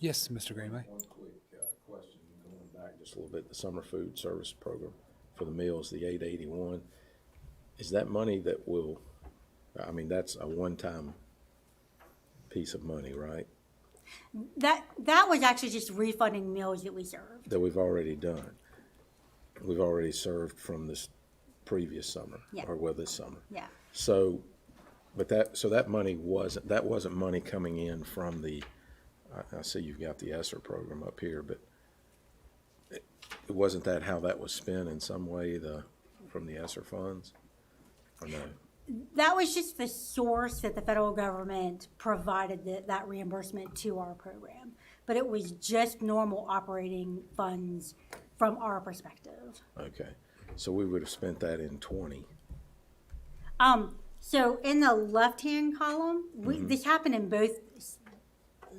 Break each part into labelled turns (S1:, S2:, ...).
S1: Yes, Mr. Greenway.
S2: One quick uh, question, going back just a little bit, the summer food service program for the meals, the eight eighty-one. Is that money that will, I mean, that's a one-time piece of money, right?
S3: That, that was actually just refunding meals that we served.
S2: That we've already done. We've already served from this previous summer,
S3: Yeah.
S2: or well, this summer.
S3: Yeah.
S2: So, but that, so that money wasn't, that wasn't money coming in from the, I, I see you've got the ESSER program up here, but it- it wasn't that how that was spent in some way, the, from the ESSER funds? Or no?
S3: That was just the source that the federal government provided the, that reimbursement to our program. But it was just normal operating funds from our perspective.
S2: Okay. So we would have spent that in twenty.
S3: Um, so in the left-hand column, we, this happened in both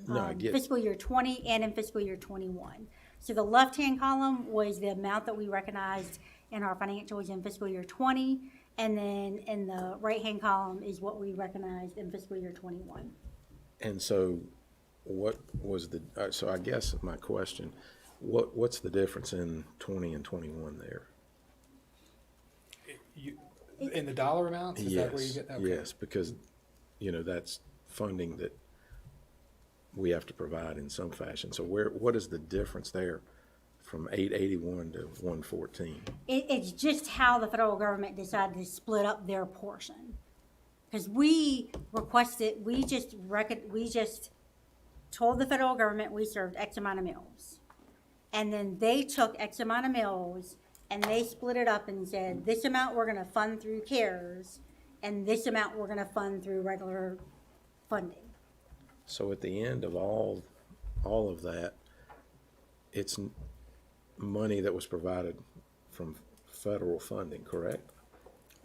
S2: No, I
S3: um,
S2: get,
S3: fiscal year twenty and in fiscal year twenty-one. So the left-hand column was the amount that we recognized in our financials in fiscal year twenty, and then in the right-hand column is what we recognized in fiscal year twenty-one.
S2: and so what was the, uh, so I guess my question, what, what's the difference in twenty and twenty-one there?
S1: You, in the dollar amounts, is that where you
S2: Yes,
S1: get that? Okay.
S2: yes, because, you know, that's funding that we have to provide in some fashion. So where, what is the difference there from eight eighty-one to one fourteen?
S3: It, it's just how the federal government decided to split up their portion. Because we requested, we just record, we just told the federal government we served X amount of meals. And then they took X amount of meals and they split it up and said, this amount we're gonna fund through CARES and this amount we're gonna fund through regular funding.
S2: So at the end of all, all of that, it's n- money that was provided from federal funding, correct?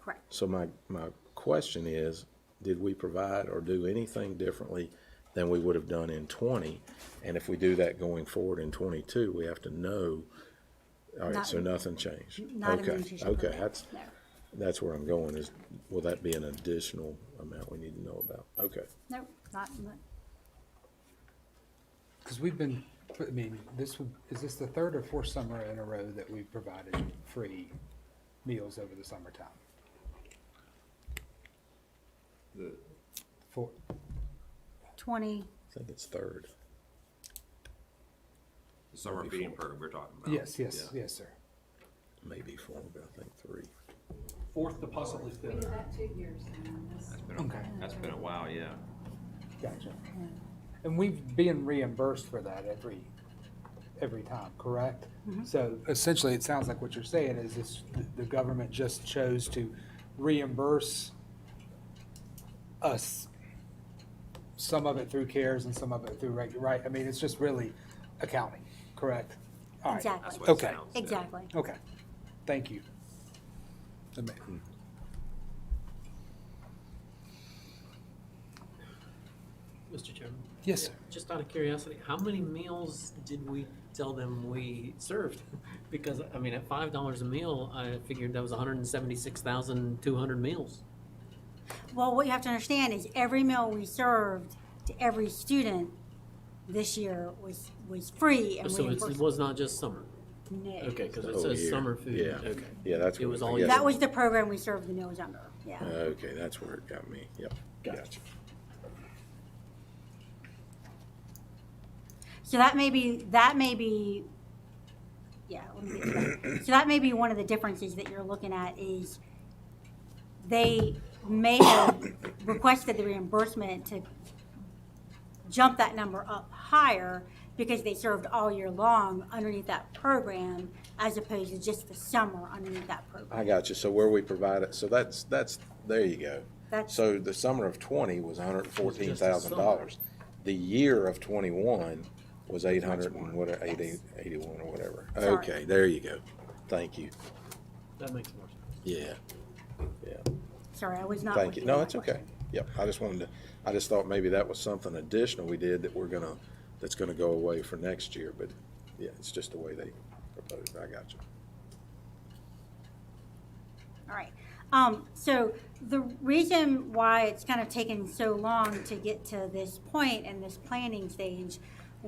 S3: Correct.
S2: So my, my question is, did we provide or do anything differently than we would have done in twenty? And if we do that going forward in twenty-two, we have to know, all right,
S3: Not-
S2: so nothing changed?
S3: Not in the
S2: Okay,
S3: nutrition
S2: Okay,
S3: program,
S2: that's,
S3: no.
S2: that's where I'm going is, will that be an additional amount we need to know about? Okay.
S3: Nope, not, not-
S1: Because we've been, I mean, this would, is this the third or fourth summer in a row that we've provided free meals over the summertime? Four,
S3: twenty,
S2: I think it's third.
S4: The summer feeding program we're talking about.
S1: yes, yes,
S4: Yeah.
S1: yes, sir.
S2: maybe four, but I think three.
S5: fourth to possibly
S6: We
S5: fifth.
S6: did that two years. and this-
S4: That's been,
S1: Okay.
S4: a- that's been a while, yeah.
S1: Gotcha. And we've been reimbursed for that every, every time, correct? So essentially, it sounds like what you're saying is this, the government just chose to reimburse us, some of it through CARES and some of it through reg, right? I mean, it's just really accounting, correct? All right.
S3: Exactly.
S4: That's what it
S1: Okay.
S4: sounds. yeah.
S3: exactly.
S1: Okay, thank you. That ma-
S5: Mr. Chairman?
S1: Yes, sir.
S5: Just out of curiosity, how many meals did we tell them we served? Because, I mean, at five dollars a meal, I figured that was hundred and seventy-six thousand, two hundred meals.
S3: Well, what you have to understand is every meal we served to every student this year was, was free and
S5: So it's- it
S3: reimbursed.
S5: was not just summer?
S3: No.
S5: Okay, because
S2: Oh,
S5: it says
S2: yeah,
S5: summer food.
S2: yeah.
S5: Okay.
S2: Yeah, that's
S5: It
S2: what
S5: was
S2: I
S5: all
S2: guess-
S5: year.
S3: That was the program we served the meals under, yeah.
S2: Okay, that's where it got me, yep. Gotcha.
S3: So that may be, that may be, yeah, let me get to that. So that may be one of the differences that you're looking at is they may have requested the reimbursement to jump that number up higher because they served all year long underneath that program as opposed to just the summer underneath that program.
S2: I got you, so where we provide it, so that's, that's, there you go.
S3: That's,
S2: So the summer of twenty was hundred and fourteen
S5: Just the
S2: thousand
S5: summer.
S2: dollars. The year of twenty-one was eight hundred and what, eighty, eighty-one or whatever.
S3: Sorry.
S2: Okay, there you go. Thank you.
S5: That makes more sense.
S2: Yeah, yeah,
S3: sorry, I was not.
S2: thank you.
S3: looking
S2: No,
S3: at
S2: it's
S3: that
S2: okay.
S3: question.
S2: Yep, I just wanted to, I just thought maybe that was something additional we did that we're gonna, that's gonna go away for next year, but yeah, it's just the way they proposed. I got you.
S3: All right. Um, so the reason why it's kind of taken so long to get to this point and this planning stage